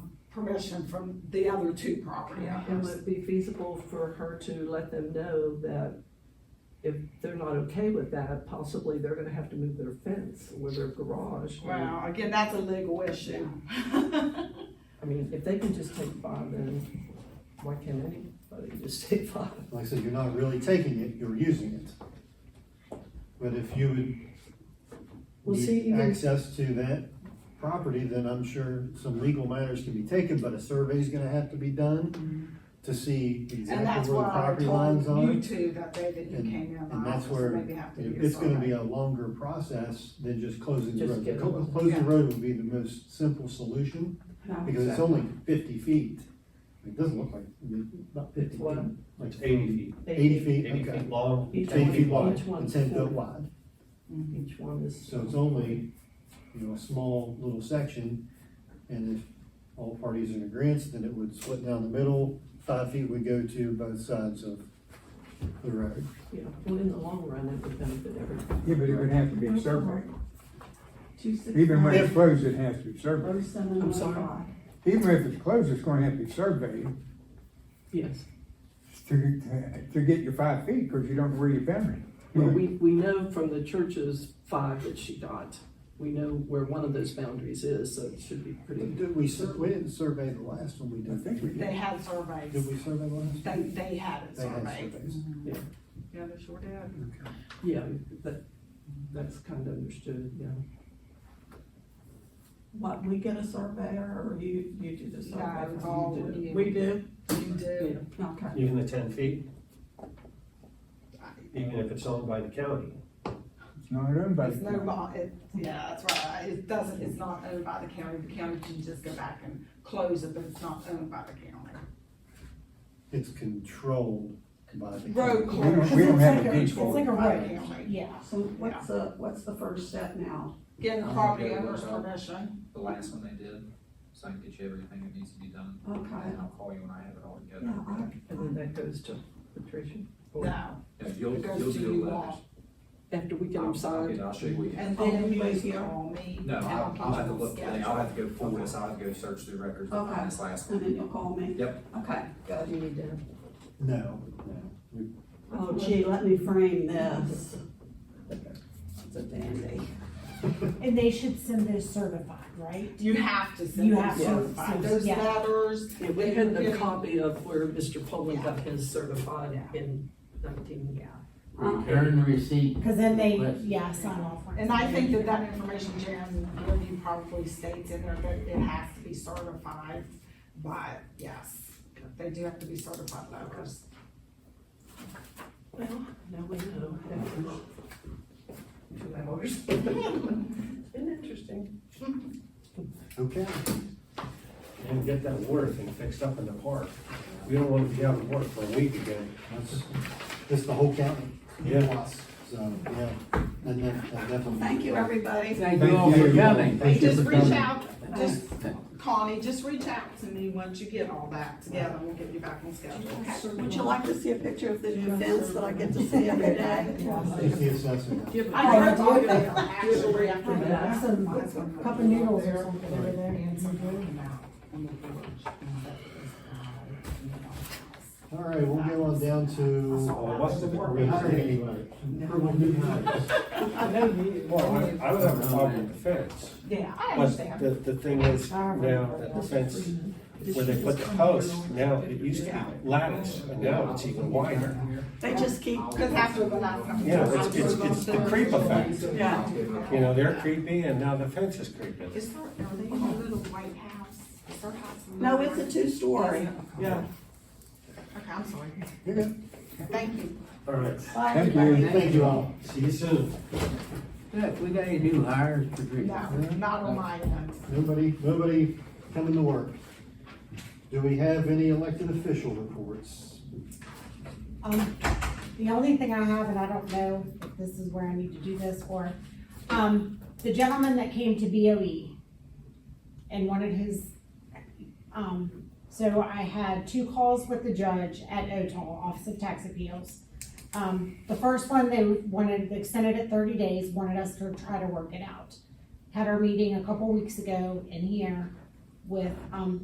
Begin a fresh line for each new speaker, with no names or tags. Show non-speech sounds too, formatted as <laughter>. permission from the other two property
And
owners.
would it be feasible for her to let them know that if they're not okay with that, possibly they're gonna have to move their fence or their garage? or-
Well, again, that's a legal issue.
I mean, if they can just take five, then why can't anybody just <laughs> take five?
Like I said, you're not really taking it, you're using it. But if you would
Well, see,
need
even-
access to that property, then I'm sure some legal matters can be taken, but a survey's gonna have to be done to see
<laughs> And that's
exactly where
why
the
I
property lines
told
are.
you two that day that you came in
And
my
that's
office,
where,
maybe have to do your
it's gonna be
survey.
a longer process than just closing the
Just
road.
get it
Clo-
over.
Closing the
Yeah.
road would be the most simple solution,
No.
because it's only fifty feet. It doesn't look like, about fifty feet,
What?
like
Eighty feet,
Eighty feet,
eighty
okay.
feet long.
Each
Ten
one-
feet wide,
each one's
and ten
four.
foot wide,
Mhm.
Each one is.
so it's only, you know, a small little section. And if all parties are in agreement, then it would split down the middle, five feet would go to both sides of the road.
Yeah, well, in the long run, it would benefit everyone.
Yeah, but it would have to be surveyed.
Two six
Even when
five,
it's closed, it has to be surveyed.
oh seven
I'm
one
sorry?
five.
Even if it's closed, it's gonna have to be surveyed
Yes.
to, to get your five feet, because you don't know where you're boundary.
Well, we, we know from the church's five that she got, we know where one of those boundaries is, so it should be pretty.
Did we sur, we didn't survey the last one we
I
did.
think we
They
did.
had surveys.
Did we survey the last?
They, they had it
They had
surveyed.
surveys.
Mhm.
Yeah.
Yeah, they sure did.
Okay.
Yeah, that, that's kind of understood, yeah.
What, we get a surveyor or you, you do the survey?
No, it's all with you.
We do?
You do.
Okay.
Even the ten feet? Even if it's owned by the county?
It's not owned by.
It's no, bo- it, yeah, that's right, it doesn't, it's not owned by the county, the county can just go back and close it, but it's not owned by the county.
It's controlled by the.
Road
We don't,
closure.
we don't have a
It's like a-
deed
It's
for
like
it.
a
By the
road.
county.
Yeah, so what's the, what's the first step now?
Getting the property owner's permission,
the last one they did, so I can get you everything that needs to be done.
Okay,
And I'll call you when I have it all
yeah,
together.
I,
And then that goes to patrician.
no,
Yeah, you'll,
It goes
you'll
to
do
you
the letters.
all.
After we get
I'll-
them
I'll
signed.
get- I'll show you what you.
and
Oh,
then you
you
just
here?
call me.
No,
and
I'll,
get
I'll
you
have to
on
look, today. I'll
schedule.
have to go pull this, I'll have to go search through records to
Okay.
find this last
and
one.
then you'll call me.
Yep.
Okay,
Do
good.
you need to?
No, no. We-
Oh gee, let me frame this. It's a dandy.
And they should send those certified, right?
You have to send
You
them
have to,
certified,
so,
those
yeah.
letters.
Yeah, we had
Yeah.
a copy of where Mr. Poland got his certified
Yeah.
in nineteen.
Uh,
Return receipt.
Because then they,
Right.
yeah, sign off on it.
And I think that that information, Jan, really probably states in there that it has to be certified, but yes, they do have to be certified letters.
Well, now we know. Two hours. Been interesting.
Okay.
And get that water thing fixed up in the park. We don't want to be out of work for a week again.
That's, that's the whole county.
Yeah.
Plus, So, yeah, that def- that definitely.
Thank you, everybody.
Thank you all for coming.
Thank you
Just
for
reach
coming.
out, just, Connie, just reach out to me once you get all that together, we'll get you back on schedule.
Would you like to see a picture of the new fence that I get to see every day?
It's the assessor.
Give
I
it-
heard talking about actually after
Yeah,
that.
some cup of noodles or something over there and some food.
All right, we'll go on down to.
Oh, what's the
Are
work?
we hiring anybody? Approval of new hires.
I know you.
Well, I, I would have a problem with the fence.
Yeah, I
But
understand.
the, the thing is, now that the fence, where they put the posts, now it used to be lattice, but now it's even wider.
They just keep,
Cause after the last couple.
Yeah, it's, it's, it's the creep effect.
yeah.
You know, they're creepy and now the fence is creeping.
Is there, are they in a little white house? Is their house? in the
No,
little
it's a
white-
two-story.
Yeah.
Okay, I'm sorry.
You're good.
Thank you.
All right,
Bye,
Thank
everybody.
you.
Thank you all.
see you soon.
Look, we got any new hires,
No,
Patricia?
not on my end.
Nobody, nobody coming to work. Do we have any elected official reports?
Um, the only thing I have, and I don't know if this is where I need to do this or, um, the gentleman that came to BOE and wanted his, um, so I had two calls with the judge at OTOL, Office of Tax Appeals. Um, the first one, they wanted, they extended it thirty days, wanted us to try to work it out. Had our meeting a couple weeks ago in here with, um,